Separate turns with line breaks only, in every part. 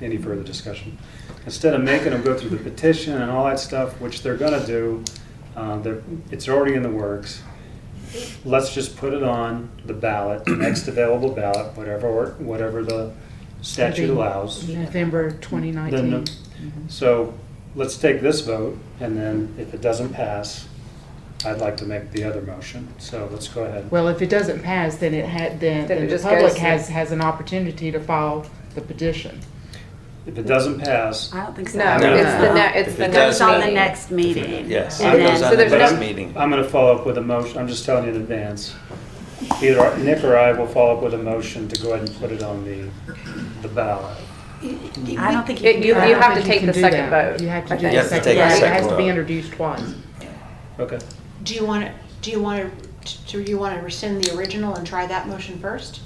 any further discussion. Instead of making them go through the petition and all that stuff, which they're gonna do, uh, they're- it's already in the works. Let's just put it on the ballot, the next available ballot, whatever, whatever the statute allows.
November
Then
2019.
the- So let's take this vote, and then if it doesn't pass, I'd like to make the other motion. So let's go ahead.
Well, if it doesn't pass, then it had, then
Then it
then the
just
public
goes-
has, has an opportunity to file the petition.
If it doesn't pass,
I don't think so.
No, it's
No,
the,
no.
ne- it's
If
the
it
Goes
next
does
on the
mean-
meeting.
next meeting.
Yes,
And
it
then-
goes
so
on the
there's
next
no-
meeting.
I'm gonna follow up with a motion, I'm just telling you in advance. Either Nick or I will follow up with a motion to go ahead and put it on the, the ballot.
I don't think you
It-
can
You,
do
you
that.
have to
But you
take
can
the
do
second
that.
vote.
You have
I
to do
think.
the
have to
second vote.
take
the
It
second
has to be
vote.
introduced twice.
Okay,
Do you want to, do you want to, do you want to rescind the original and try that motion first?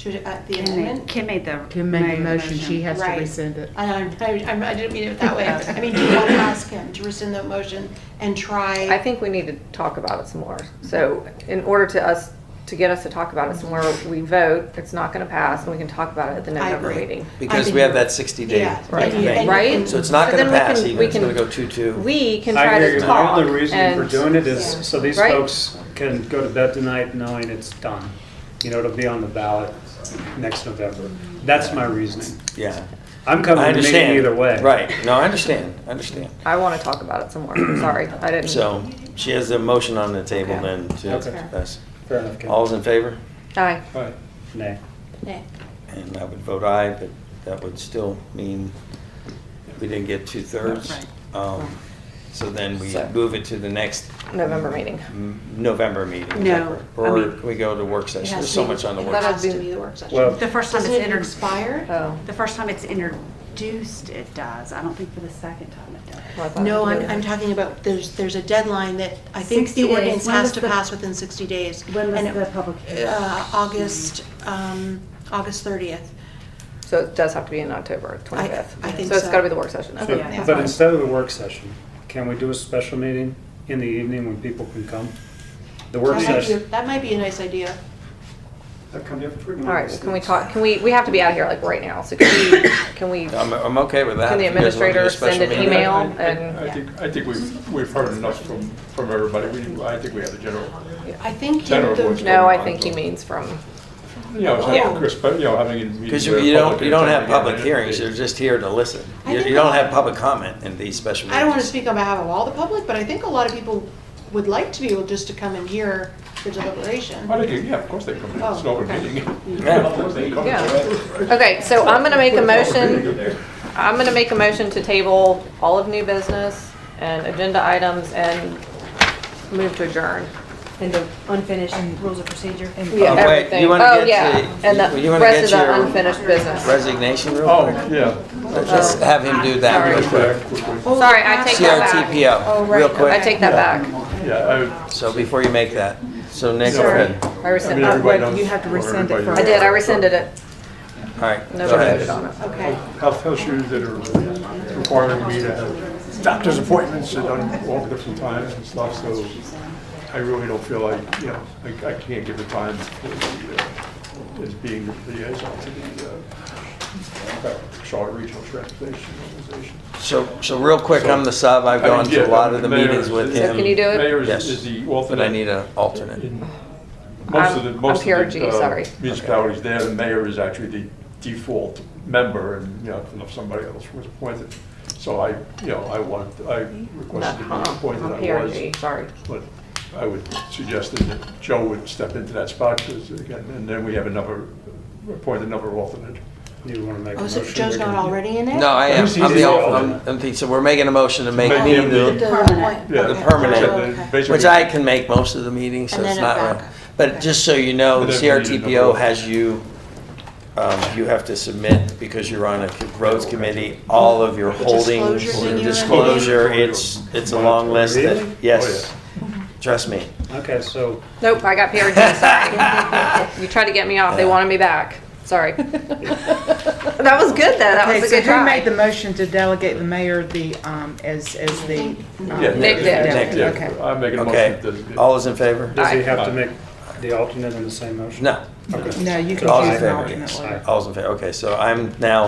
To, uh, the
Kim made-
amendment?
Kim made the.
Kim made the motion, she has to
Right.
rescind it.
I know, I, I- I didn't mean it that way. I mean, do you want to ask him to rescind the motion and try?
I think we need to talk about it some more. So in order to us, to get us to talk about it some more, we vote, it's not gonna pass, and we can talk about it at the
I
November
agree.
meeting.
Because
think
we have
you're-
that 60 day
Yeah,
Right.
and you-
thing.
and-
Right?
So it's not
So then
going to
we
pass
can-
even.
we
It's going to
can-
go 2 2.
We can
I
try
hear
to
you.
talk.
Part of the reason for
and-
doing it is so these
Right.
folks can go to bed tonight knowing it's done. You know, it'll be on the ballot next November. That's my reasoning.
Yeah.
I'm coming to
I
the meeting
understand.
either way.
Right. No, I understand. I understand.
I wanna talk about it some more, sorry, I didn't.
So she has a motion on the table
Okay.
then to
That's fair.
pass.
Fair enough, Kim.
All's in favor?
Aye,
Right. Nay.
Yeah.
And I would vote aye, but that would still mean we didn't get two thirds.
Right.
So then we
So-
move it to the next
November meeting.
m- November meeting. is that
No,
correct?
I
Or
mean-
we go to work
It
session.
has
There's
to
so
be-
much on the
It
work.
has
session.
to be the work session.
Well,
The first time it's
Doesn't it
introduced,
expire?
Oh.
the first time it's introduced, it does. I don't think for the second time it does.
well, I thought
No,
we
I'm,
did.
I'm talking about, there's, there's a deadline that I think
60
the
days.
ordinance
When
has
was
to
the-
pass within 60 days.
When was
And it-
the public hearing?
Uh, August, um, August 30th.
So it does have to be in October twenty-fifth.
I think
So it's
so.
gotta be the work session.
but,
then.
yeah.
but instead of the work session, can we do a special meeting in the evening when people can come? The work
That might be-
session.
That might be a nice idea.
All right, well, can we talk, can we, we have to be out of here like right now, so can we, can we,
I'm, I'm okay with that.
Can the
If you guys wanna do a
administrator
special
send an
meeting.
email?
I- I-
and-
I think, I think we've, we've heard enough from, from everybody. We, I think we have the general,
I think
General
the-
voice.
no, I think he means from,
you know,
Yeah.
having Chris, but, you know, having a meeting.
Because
where
you don't,
public
you don't have
attending
public
and it-
hearings,
it-
you're just here to listen.
I
You,
think
you don't
a-
have public comment in these special meetings.
I don't want to speak on behalf of all the public, but I think a lot of people would like to be able just to come and hear the deliberation.
Oh, they can- yeah, of course they come. in. It's an
Oh,
open
okay.
meeting.
Yeah.
Of course they come.
yeah. Okay, so I'm gonna make a motion, I'm gonna make a motion to table all of new business and agenda items and move to adjourn.
And the unfinished rules of procedure.
Yeah,
Oh, wait, you
everything.
wanna
Oh,
get
yeah,
to-
and
you- you
the
wanna
rest of
get
the
your-
unfinished business.
Resignation real
Oh,
quick?
yeah.
Let's just have him do that
Oh. Sorry.
real quick.
Oh,
Sorry, I take that back.
Oh,
CRTPO, real
I
quick.
take that back.
Yeah,
So before you make that, so Nick, go
Sorry.
ahead.
I
I, I
rescind,
mean,
I
everybody
what,
knows.
you have to
what
rescind it
everybody
first.
knows.
did, I rescinded it.
All right, go
Nobody
ahead.
voted on it.
Okay.
Health, health issues that are requiring me to have doctor's appointments at un- all different times and stuff, so I really don't feel like, you know, I, I can't give the time to the, uh, as being the liaison to the, uh, Charlotte Regional Transportation Organization.
So, so real quick, I'm the sub, I've
I mean,
gone to
yeah,
a lot of the
mayor
meetings
is-
with
is-
him.
So can you do it?
Mayor is-
Yes.
is the
But I
alternate.
need an alternate.
In Most of the,
I'm-
most
I'm
of
PRG,
the
sorry.
uh, municipalities there, the mayor is actually the default member, and, you know, if somebody else was appointed. So I, you know, I want, I requested to
Uh-huh.
be appointed,
I'm
I
PRG,
was.
sorry.
But I would suggest that Joe would step into that spot, 'cause again, and then we have another, appoint another alternate.
You want to make a
Oh, so
motion?
Joe's
we
not
can-
already in it?
No, I am,
Who's
I'm
the
the, al-
alternate?
I'm- I'm, the- so we're making a motion to make
Make
me
him
the.
the-
The
Permanent.
appoint-
Yeah,
okay.
The permanent.
Oh, okay.
Basically-
Which I can make most of the meetings, so
And
it's
then a
not real.
backup.
But
Okay.
just so you know,
But
the
then we need another
CRTPO
one.
has you, um, you have to submit, because you're on a co- roads committee, all of your holdings,
Disclosure thing
your
you're in?
disclosure, it's, it's a long list that,
Really?
yes. Trust me.
Okay, so
Nope, I got PRG, sorry. You tried to get me off, they wanted me back, sorry. That was good though, that
Okay,
was a
so
good
who made the
try.
motion to delegate the mayor the, um, as, as the? um,
Yeah,
Nick did.
yeah,
Nick
yeah.
did. Okay.
I'm making a motion.
Okay,
to-
all is in favor?
does he
Aye.
have to make the alternate in the same motion?
No.
Okay.
No, you can
All's in
choose an
favor,
alternate
yes.
later.
All's in favor, okay, so I'm now